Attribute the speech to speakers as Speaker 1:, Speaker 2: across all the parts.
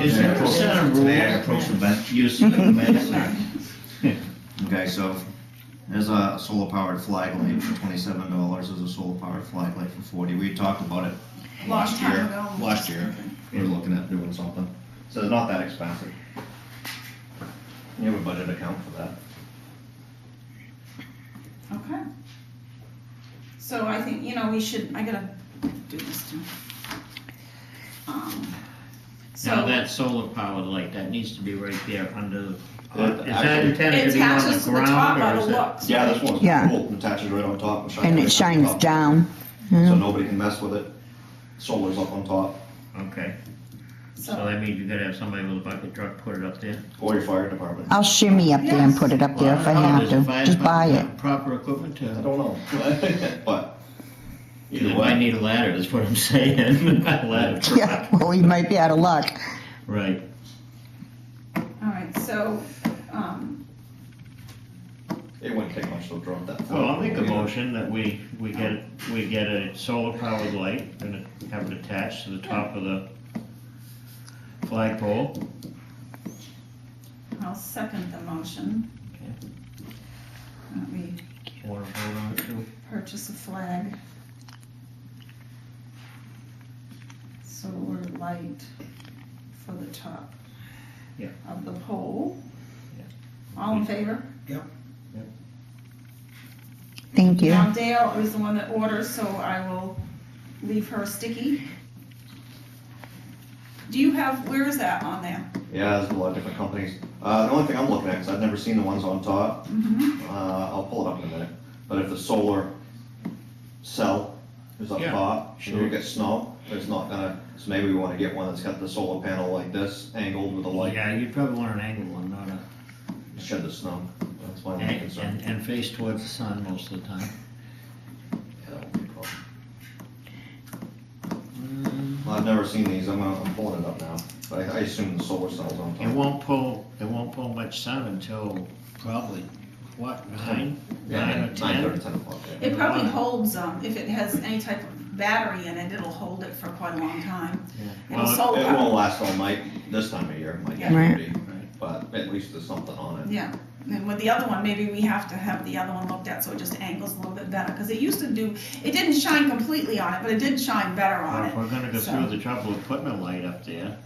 Speaker 1: Is
Speaker 2: May I
Speaker 1: there a
Speaker 2: approach-
Speaker 1: set of
Speaker 2: May I
Speaker 1: rules?
Speaker 2: approach the bench?
Speaker 1: Use of the minutes.
Speaker 2: Okay, so there's a solar powered flag light for twenty-seven dollars, there's a solar powered flag light for forty, we talked about it
Speaker 3: Long
Speaker 2: last
Speaker 3: time
Speaker 2: year.
Speaker 3: ago.
Speaker 2: Last year, we were looking at doing something, so it's not that expensive. You have a budget account for that.
Speaker 3: Okay. So I think, you know, we should, I gotta do this too.
Speaker 1: Now,
Speaker 3: Um, So
Speaker 1: that solar powered light, that needs to be right there under,
Speaker 2: Uh,
Speaker 1: is that intended to
Speaker 3: it
Speaker 1: be on
Speaker 3: attaches
Speaker 1: the
Speaker 3: to the top
Speaker 1: ground
Speaker 3: by
Speaker 1: or
Speaker 3: the
Speaker 1: is it?
Speaker 3: looks.
Speaker 2: Yeah, this one's
Speaker 4: Yeah.
Speaker 2: cool, it attaches right on top. shines
Speaker 4: And
Speaker 2: right
Speaker 4: it
Speaker 2: on
Speaker 4: shines
Speaker 2: top.
Speaker 4: down.
Speaker 2: So
Speaker 4: Yeah.
Speaker 2: nobody can mess with it, solar's up on top,
Speaker 1: Okay, so
Speaker 3: So,
Speaker 1: that means you gotta have somebody with a bucket truck put it up there?
Speaker 2: or your fire department,
Speaker 4: I'll shimmy up there and put it up there if I have
Speaker 1: Does the
Speaker 4: to.
Speaker 1: fire
Speaker 4: Just buy it.
Speaker 1: department have Proper equipment to.
Speaker 2: I don't know, but
Speaker 1: You
Speaker 2: either
Speaker 1: might
Speaker 2: way,
Speaker 1: need a ladder, is what I'm saying. A ladder truck.
Speaker 4: Yeah, well, we might be out of luck.
Speaker 1: Right.
Speaker 3: alright, so, um,
Speaker 2: it wouldn't take much to drop that.
Speaker 1: Well, I'll make a
Speaker 2: flag.
Speaker 1: motion that we, we get, we get a solar powered light and have it attached to the top of the flagpole.
Speaker 3: I'll second the motion.
Speaker 1: Okay.
Speaker 3: That we
Speaker 1: Wanna vote on it too?
Speaker 3: purchase a flag. Solar light for the top.
Speaker 1: Yeah.
Speaker 3: Of the pole.
Speaker 1: Yeah.
Speaker 3: All in favor?
Speaker 4: Thank you.
Speaker 3: Now Dale is the one that orders, so I will leave her sticky. Do you have, where is that on there?
Speaker 2: Yeah, there's a lot of different companies. Uh, the only thing I'm looking at, because I've never seen the ones on top,
Speaker 3: Mm-hmm.
Speaker 2: uh, I'll pull it up in a minute, but if the solar cell is up
Speaker 1: Yeah,
Speaker 2: top, and
Speaker 1: sure.
Speaker 2: you get snow, it's not gonna, so maybe we wanna get one that's got the solar panel like this, angled with a light,
Speaker 1: Yeah, you'd probably want an angled one, not a,
Speaker 2: shed the snow. That's why I'm
Speaker 1: and,
Speaker 2: concerned.
Speaker 1: and- and face towards the sun most of the time.
Speaker 2: Yeah, that would be cool.
Speaker 1: Mm,
Speaker 2: Well, I've never seen these, I'm gonna, I'm pulling it up now, but I I assume the solar cell's on
Speaker 1: It
Speaker 2: top.
Speaker 1: won't pull, it won't pull much sun until probably, what, nine,
Speaker 2: Yeah,
Speaker 1: nine or
Speaker 2: Nine
Speaker 1: ten?
Speaker 2: thirty, ten o'clock, yeah.
Speaker 3: It probably holds, um, if it has any type of battery in it, it'll hold it for quite a long time.
Speaker 1: Yeah.
Speaker 3: And
Speaker 1: Well,
Speaker 3: solar,
Speaker 2: It won't last all night, this time of year, it might
Speaker 3: Yeah.
Speaker 4: Right.
Speaker 2: be, but at least there's something on it.
Speaker 3: yeah, and with the other one, maybe we have to have the other one looked at, so it just angles a little bit better, cause it used to do, it didn't shine completely on it, but it did shine better
Speaker 1: Well,
Speaker 3: on
Speaker 1: if
Speaker 3: it.
Speaker 1: we're gonna go
Speaker 3: so-
Speaker 1: through the trouble of putting a light up there,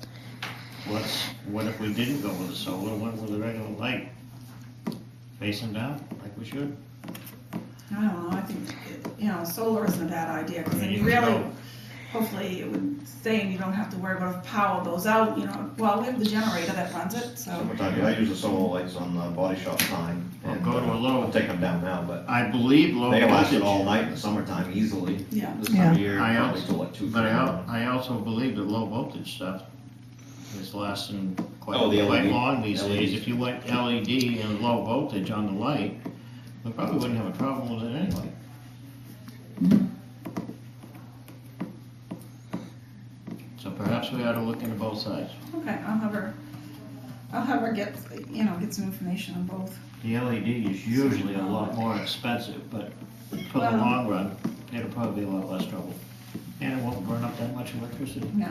Speaker 1: what's, what if we didn't go with a solar, went with a regular light? Facing down, like we should?
Speaker 3: I don't know, I think, it- you know, solar isn't a bad idea, cause
Speaker 1: I mean,
Speaker 3: then
Speaker 1: you
Speaker 3: you
Speaker 1: can
Speaker 3: really,
Speaker 1: go-
Speaker 3: hopefully it would stay and you don't have to worry about if power goes out, you know, well, we have the generator that runs it, so.
Speaker 2: Summertime, yeah, I use the solar lights on the body shop sign.
Speaker 1: Well,
Speaker 2: and,
Speaker 1: go to
Speaker 2: uh,
Speaker 1: a low. Oh,
Speaker 2: I'll take them down now, but
Speaker 1: I believe low
Speaker 2: they can last it all
Speaker 1: voltage,
Speaker 2: night in the summertime easily.
Speaker 3: Yeah.
Speaker 2: This time of
Speaker 4: Yeah.
Speaker 2: year,
Speaker 1: I
Speaker 2: probably
Speaker 1: also-
Speaker 2: till like two.
Speaker 1: but I,
Speaker 2: three.
Speaker 1: al- I also believe that low voltage stuff is lasting quite,
Speaker 2: Oh, the
Speaker 1: quite
Speaker 2: LED.
Speaker 1: long these days.
Speaker 2: LEDs.
Speaker 1: If you went LED and low voltage on the light, we probably wouldn't have a problem with it anyway. So perhaps we ought to look into both sides.
Speaker 3: Okay, I'll have her, I'll have her get, you know, get some information on both.
Speaker 1: The LED is usually a lot more expensive, but for the
Speaker 3: Well-
Speaker 1: long run, it'll probably be a lot less trouble. And it won't burn up that much electricity.
Speaker 3: No.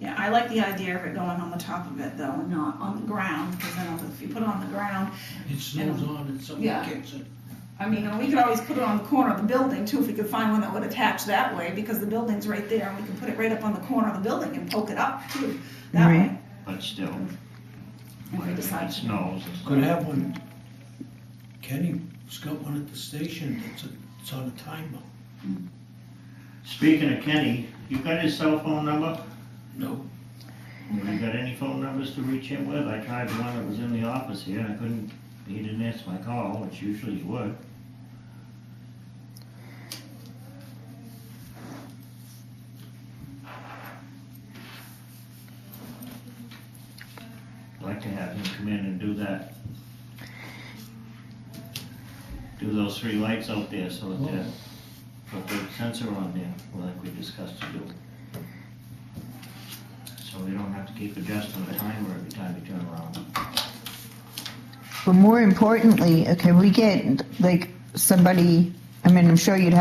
Speaker 3: Yeah, I like the idea of it going on the top of it though, and not on the ground, because I know if you put it on the ground,
Speaker 5: It snows on and
Speaker 3: Yeah.
Speaker 5: something kicks it.
Speaker 3: I mean, and we could always put it on the corner of the building too, if we could find one that would attach that way, because the building's right there, and we can put it right up on the corner of the building and poke it up too, that way.
Speaker 4: Right.
Speaker 1: But still,
Speaker 3: If we
Speaker 1: when it
Speaker 3: decide. to.
Speaker 1: snows, it's
Speaker 5: Could have one, Kenny's got one at the station, it's, a- it's on a timer.
Speaker 1: Speaking of Kenny, you got his cell phone number?
Speaker 5: No,
Speaker 1: Have you got any phone numbers to reach him with? I tried the one that was in the office here, and I couldn't, he didn't answer my call, which usually he would. Like to have him come in and do that. Do those three lights out there, so that, they're- put the sensor on there, like we discussed to do. So we don't have to keep adjusting the timer every time you turn around.
Speaker 4: But more importantly, okay, we get like somebody, I mean, I'm sure you'd have